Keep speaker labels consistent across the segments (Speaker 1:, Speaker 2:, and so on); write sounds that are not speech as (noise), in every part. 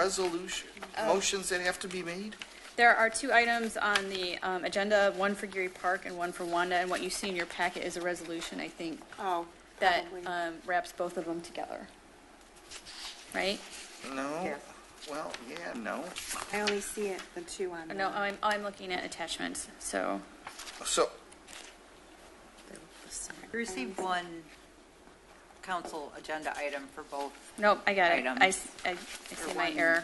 Speaker 1: resolution,
Speaker 2: Oh.
Speaker 1: motions that have to be made?
Speaker 3: There are two items on the um, agenda, one for Geary Park and one for Wanda, and what you see in your packet is a resolution, I think,
Speaker 2: Oh,
Speaker 3: that
Speaker 2: probably.
Speaker 3: um, wraps both of them together. Right?
Speaker 1: No?
Speaker 2: Yes.
Speaker 1: Well, yeah, no.
Speaker 2: I only see it, the two on.
Speaker 3: No,
Speaker 2: the-
Speaker 3: I'm, I'm looking at attachments, so,
Speaker 1: So,
Speaker 4: We received one council agenda item for both.
Speaker 3: nope, I got it.
Speaker 4: Item.
Speaker 3: I, s- I- I see my
Speaker 4: one.
Speaker 3: error.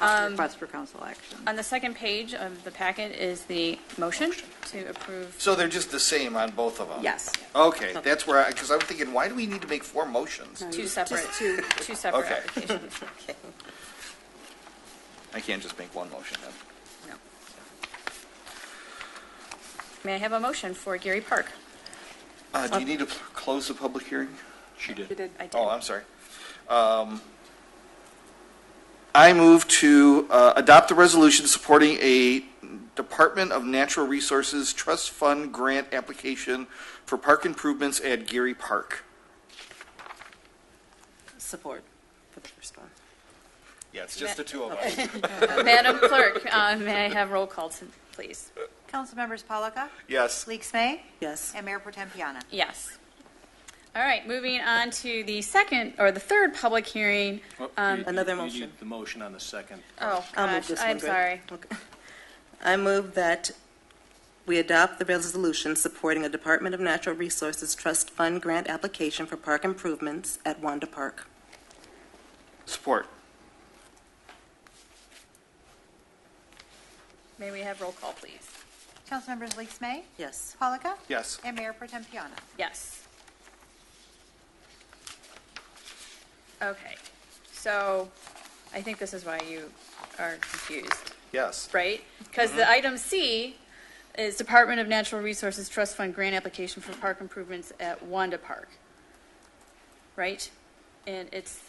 Speaker 4: Request for council action.
Speaker 3: On the second page of the packet is the motion to approve.
Speaker 1: so they're just the same on both of them?
Speaker 2: Yes.
Speaker 1: Okay, that's where, I because I'm thinking, why do we need to make four motions?
Speaker 2: No,
Speaker 3: Two
Speaker 2: just-
Speaker 3: separate, (laughs)
Speaker 2: Just
Speaker 3: two
Speaker 2: two.
Speaker 3: separate
Speaker 1: Okay.
Speaker 3: applications.
Speaker 1: I can't just make one motion then.
Speaker 3: No. May I have a motion for Geary Park?
Speaker 1: Uh, do you need to pl- close the public hearing?
Speaker 5: She
Speaker 2: You
Speaker 5: did.
Speaker 2: did.
Speaker 3: I did.
Speaker 1: Oh, I'm sorry. Um, I move to uh, adopt the resolution supporting a Department of Natural Resources Trust Fund grant application for park improvements at Geary Park.
Speaker 6: Support for the first one.
Speaker 5: Yeah, it's
Speaker 3: just
Speaker 5: just
Speaker 3: the
Speaker 5: the two of us.
Speaker 3: Madam Clerk, uh, may I have roll call, to- please?
Speaker 4: Councilmembers Polaka,
Speaker 1: Yes.
Speaker 4: Leaks May,
Speaker 6: Yes.
Speaker 4: and Mayor Potem Piana.
Speaker 3: Yes. All right, moving on to the second, or the third public hearing. Um,
Speaker 6: Another
Speaker 5: You need
Speaker 6: motion.
Speaker 5: The motion on the second.
Speaker 3: Oh,
Speaker 6: I'll move
Speaker 3: gosh,
Speaker 6: this one.
Speaker 3: I'm
Speaker 6: Greg.
Speaker 3: sorry.
Speaker 6: Okay. I move that we adopt the resolution supporting a Department of Natural Resources Trust Fund grant application for park improvements at Wanda Park.
Speaker 1: Support.
Speaker 3: May we have roll call, please?
Speaker 4: Councilmembers Leaks May,
Speaker 6: Yes.
Speaker 4: Polaka.
Speaker 1: Yes.
Speaker 4: And Mayor Potem Piana.
Speaker 3: Yes. Okay, so I think this is why you are confused.
Speaker 1: Yes.
Speaker 3: right? Because
Speaker 5: Mm-hmm.
Speaker 3: the item C is Department of Natural Resources Trust Fund grant application for park improvements at Wanda Park, right? And it's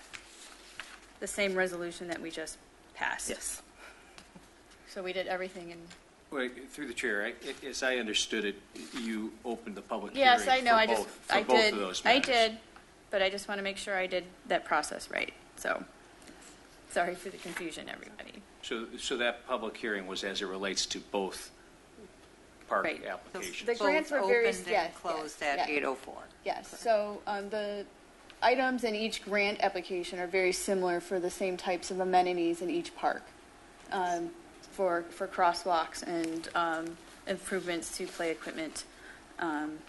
Speaker 3: the same resolution that we just passed.
Speaker 6: Yes.
Speaker 3: So we did everything in,
Speaker 5: Wait, through the chair, I- I- as I understood it, you opened the public hearing.
Speaker 3: yes, I know,
Speaker 5: for
Speaker 3: I just,
Speaker 5: both- for
Speaker 3: I
Speaker 5: both of
Speaker 3: did,
Speaker 5: those
Speaker 3: I
Speaker 5: matters.
Speaker 3: did, but I just want to make sure I did that process right, so. Sorry for the confusion, everybody.
Speaker 5: So, so that public hearing was as it relates to both park
Speaker 3: Right.
Speaker 5: applications.
Speaker 3: The grants were very-
Speaker 4: Both opened
Speaker 3: yes,
Speaker 4: and closed
Speaker 3: yes,
Speaker 4: at
Speaker 3: yes.
Speaker 4: 8:04.
Speaker 3: Yes, so um, the items in each grant application are very similar for the same types of amenities in each park, um, for, for crosswalks and um, improvements to play equipment. Um,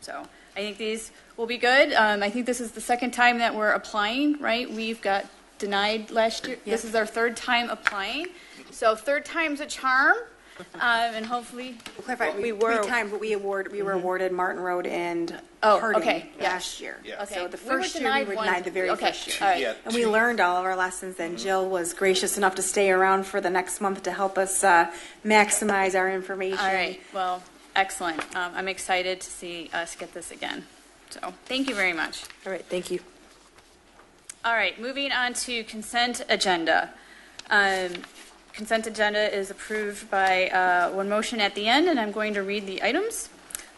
Speaker 3: So I think these will be good. Um, I think this is the second time that we're applying, right? We've got denied last year. This is our third time applying, so third time's a charm, Um, and hopefully,
Speaker 2: Clarify,
Speaker 3: we
Speaker 2: we,
Speaker 3: were- Mm-hmm.
Speaker 2: three times, but we award, we were awarded Martin Road and
Speaker 3: Oh,
Speaker 2: Harding
Speaker 3: okay, yeah.
Speaker 2: last year.
Speaker 1: Yeah.
Speaker 2: So
Speaker 3: Okay,
Speaker 2: the
Speaker 3: we were
Speaker 2: first year, we
Speaker 3: denied
Speaker 2: were
Speaker 3: one.
Speaker 2: denied the very
Speaker 3: Okay,
Speaker 2: first
Speaker 3: all
Speaker 2: year.
Speaker 3: right.
Speaker 5: Yeah,
Speaker 2: And we learned all of our lessons, and Jill was gracious enough to stay around for the next month to help us uh, maximize our information.
Speaker 3: All right, well, excellent. Um, I'm excited to see us get this again. So, thank you very much.
Speaker 6: All right, thank you.
Speaker 3: All right, moving on to consent agenda. Um, Consent agenda is approved by uh, one motion at the end, and I'm going to read the items.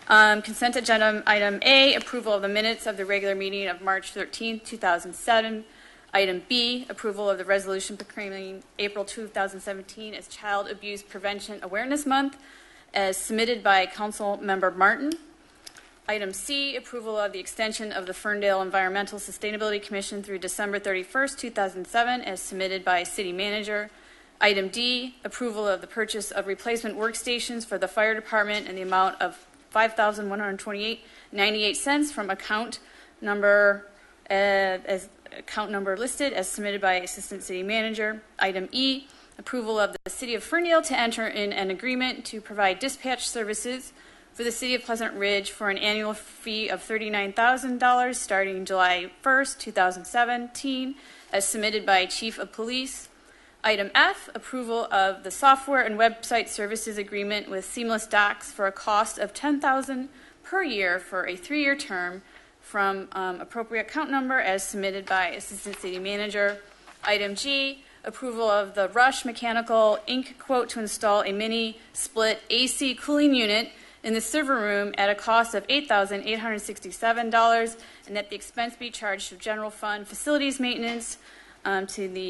Speaker 3: Um, Consent agenda, item A, approval of the minutes of the regular meeting of March 13, 2007. Item B, approval of the resolution proclaiming April 2017 as Child Abuse Prevention Awareness Month, as submitted by Councilmember Martin. Item C, approval of the extension of the Ferndale Environmental Sustainability Commission through December 31st, 2007, as submitted by city manager. Item D, approval of the purchase of replacement workstations for the fire department in the amount of $5,128.98 from account number, uh, as, account number listed as submitted by Assistant City Manager. Item E, approval of the City of Ferndale to enter in an agreement to provide dispatch services for the City of Pleasant Ridge for an annual fee of $39,000 starting July 1st, 2017, as submitted by Chief of Police. Item F, approval of the software and website services agreement with Seamless Docs for a cost of $10,000 per year for a three-year term from um, appropriate account number as submitted by Assistant City Manager. Item G, approval of the Rush Mechanical Inc. quote to install a mini split AC cooling unit in the server room at a cost of $8,867, and that the expense be charged to general fund facilities maintenance um, to the